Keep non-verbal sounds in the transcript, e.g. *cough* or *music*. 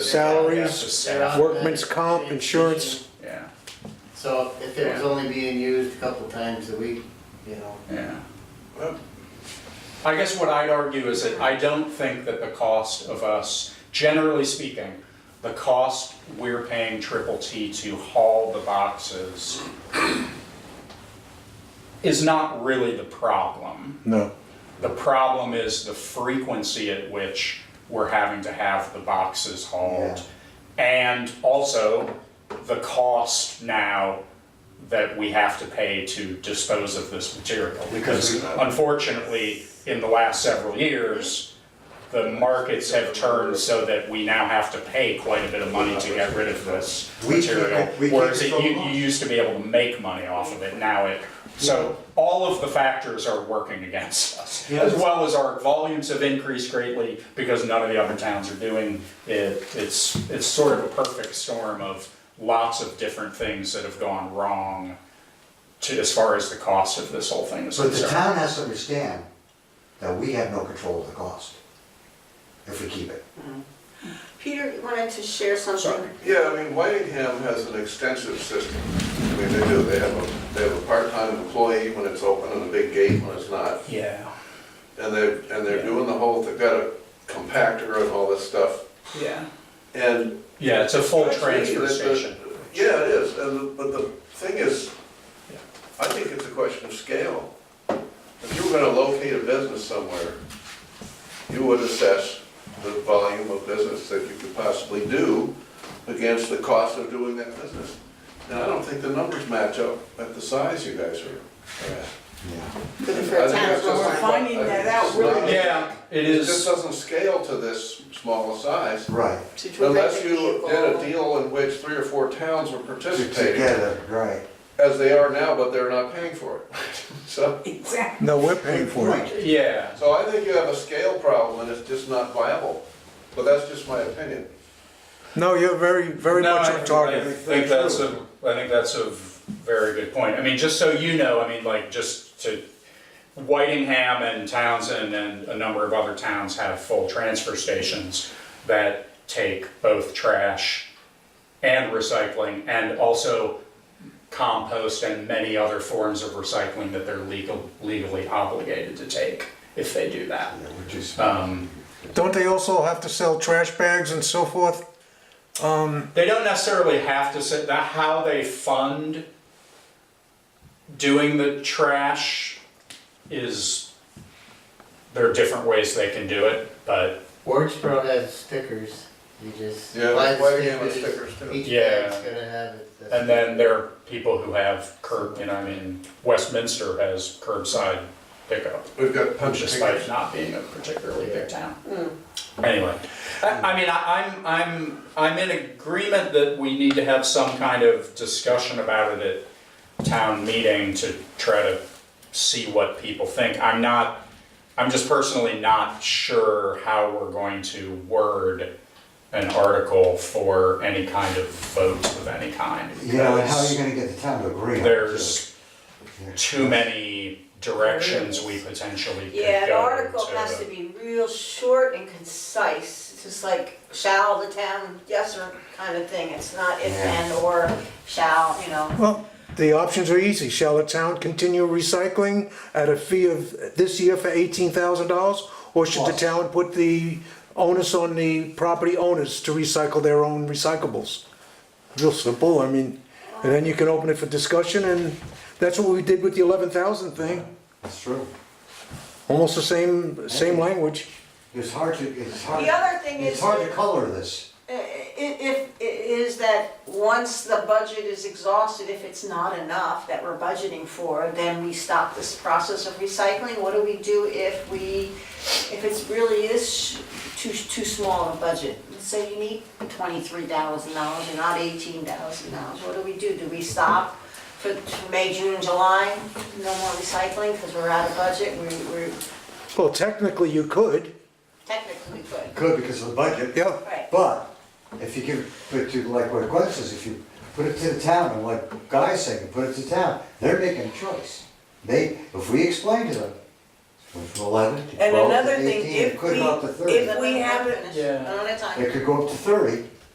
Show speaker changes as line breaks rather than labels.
salaries, workman's comp, insurance.
Yeah,
So if it was only being used a couple times a week, you know,
yeah. I guess what I'd argue is that I don't think that the cost of us, generally speaking, the cost we're paying Triple T to haul the boxes is not really the problem.
No,
The problem is the frequency at which we're having to have the boxes hauled. And also the cost now that we have to pay to dispose of this material. Because unfortunately, in the last several years, the markets have turned so that we now have to pay quite a bit of money to get rid of this
We keep
material.
it- we keep
Whereas
it
it-
for
you,
long.
you used to be able to make money off of it, now it, so all of the factors are working against us. As well as our volumes have increased greatly because none of the other towns are doing it. It's, it's sort of a perfect storm of lots of different things that have gone wrong to, as far as the cost of this whole thing is
But the
concerned.
town has to understand that we have no control of the cost if we keep it.
Peter wanted to share something.
Sorry.
Yeah, I mean, Whitingham has an extensive system. I mean, they do, they have a, they have a part-time employee when it's open and a big gate when it's not.
Yeah,
And they're, and they're
Yeah.
doing the whole, they've got a compactor and all this stuff.
yeah.
And.
Yeah, it's a full
Actually,
transfer
the- the-
station.
Yeah, it is, and, the- but the thing is,
Yeah.
I think it's a question of scale. If you were gonna locate a business somewhere, you would assess the volume of business that you could possibly do against the cost of doing that business. And I don't think the numbers match up at the size you guys are. are at.
For the
I
first
think
time,
that's
but
just
we're
not-
finding
I think
that
it's
out
just
really
not-
Yeah, it
It just
is,
doesn't scale to this small a size.
Right.
to direct
Unless you
people.
did a deal in which three or four towns were participating,
Together, right.
as they are now, but they're not paying for it. *laughs* So,
Exactly.
no, we're paying for it.
Right.
yeah.
so I think you have a scale problem and it's just not viable, but that's just my opinion.
No, you're very, very
No,
much
I-
on target.
I think that's a, I think that's a very good point. I mean, just so you know, I mean, like, just to, Whitingham and Townsend and a number of other towns have full transfer stations that take both trash and recycling and also compost and many other forms of recycling that they're legal, legally obligated to take if they do that.
Yeah, which is-
Um,
Don't they also have to sell trash bags and so forth? Um,
they don't necessarily have to sit that how they fund doing the trash is there are different ways they can do it but
Wordsboro has stickers, you just
Yeah,
buy
why
the
do you have
stickers.
stickers too?
Each
Yeah.
bag's gonna have it. that's-
and then there are people who have curb you know i mean westminster has curbside pickup
We've got punch
despite
fingers.
not being a particularly big town. Anyway, I, I mean, I, I'm, I'm, I'm in agreement that we need to have some kind of discussion about it at town meeting to try to see what people think. I'm not, I'm just personally not sure how we're going to word an article for any kind of vote of any kind.
You know, and how are
because-
you gonna get the town to agree on it?
there's
Yeah.
too many directions we potentially could go to.
Yeah, an article has to be real short and concise, It's just like shall the town, yes or kind of thing. It's not if and or shall, you know.
Well, the options are easy. Shall the town continue recycling at a fee of this year for eighteen thousand dollars? Or should the town put the onus on the property owners to recycle their own recyclables? Real simple, I mean, and then you can open it for discussion and that's what we did with the eleven thousand thing.
That's true.
Almost the same, same language.
It's hard to, it's hard.
The other thing
It's
is,
hard to
i-
color this.
i- if, is that once the budget is exhausted, if it's not enough that we're budgeting for, then we stop this process of recycling. What do we do if we, if it's really is sh- too, too small a budget? Let's say you need twenty-three thousand dollars and not eighteen thousand dollars, what do we do? Do we stop for May, June, and July? No more recycling because we're out of budget, we- we're
Well, technically you could,
technically good,
Could because of the budget.
yeah.
right?
But if you give, but you, like what Glenn says, if you put it to the town, and like Guy's saying, put it to town, they're making a choice. They, if we explain to them, from eleven to
And
twelve
another
to
thing,
eighteen, it
if
could
we-
go up to thirty.
if- we have it-
Another time.
It could go up to thirty,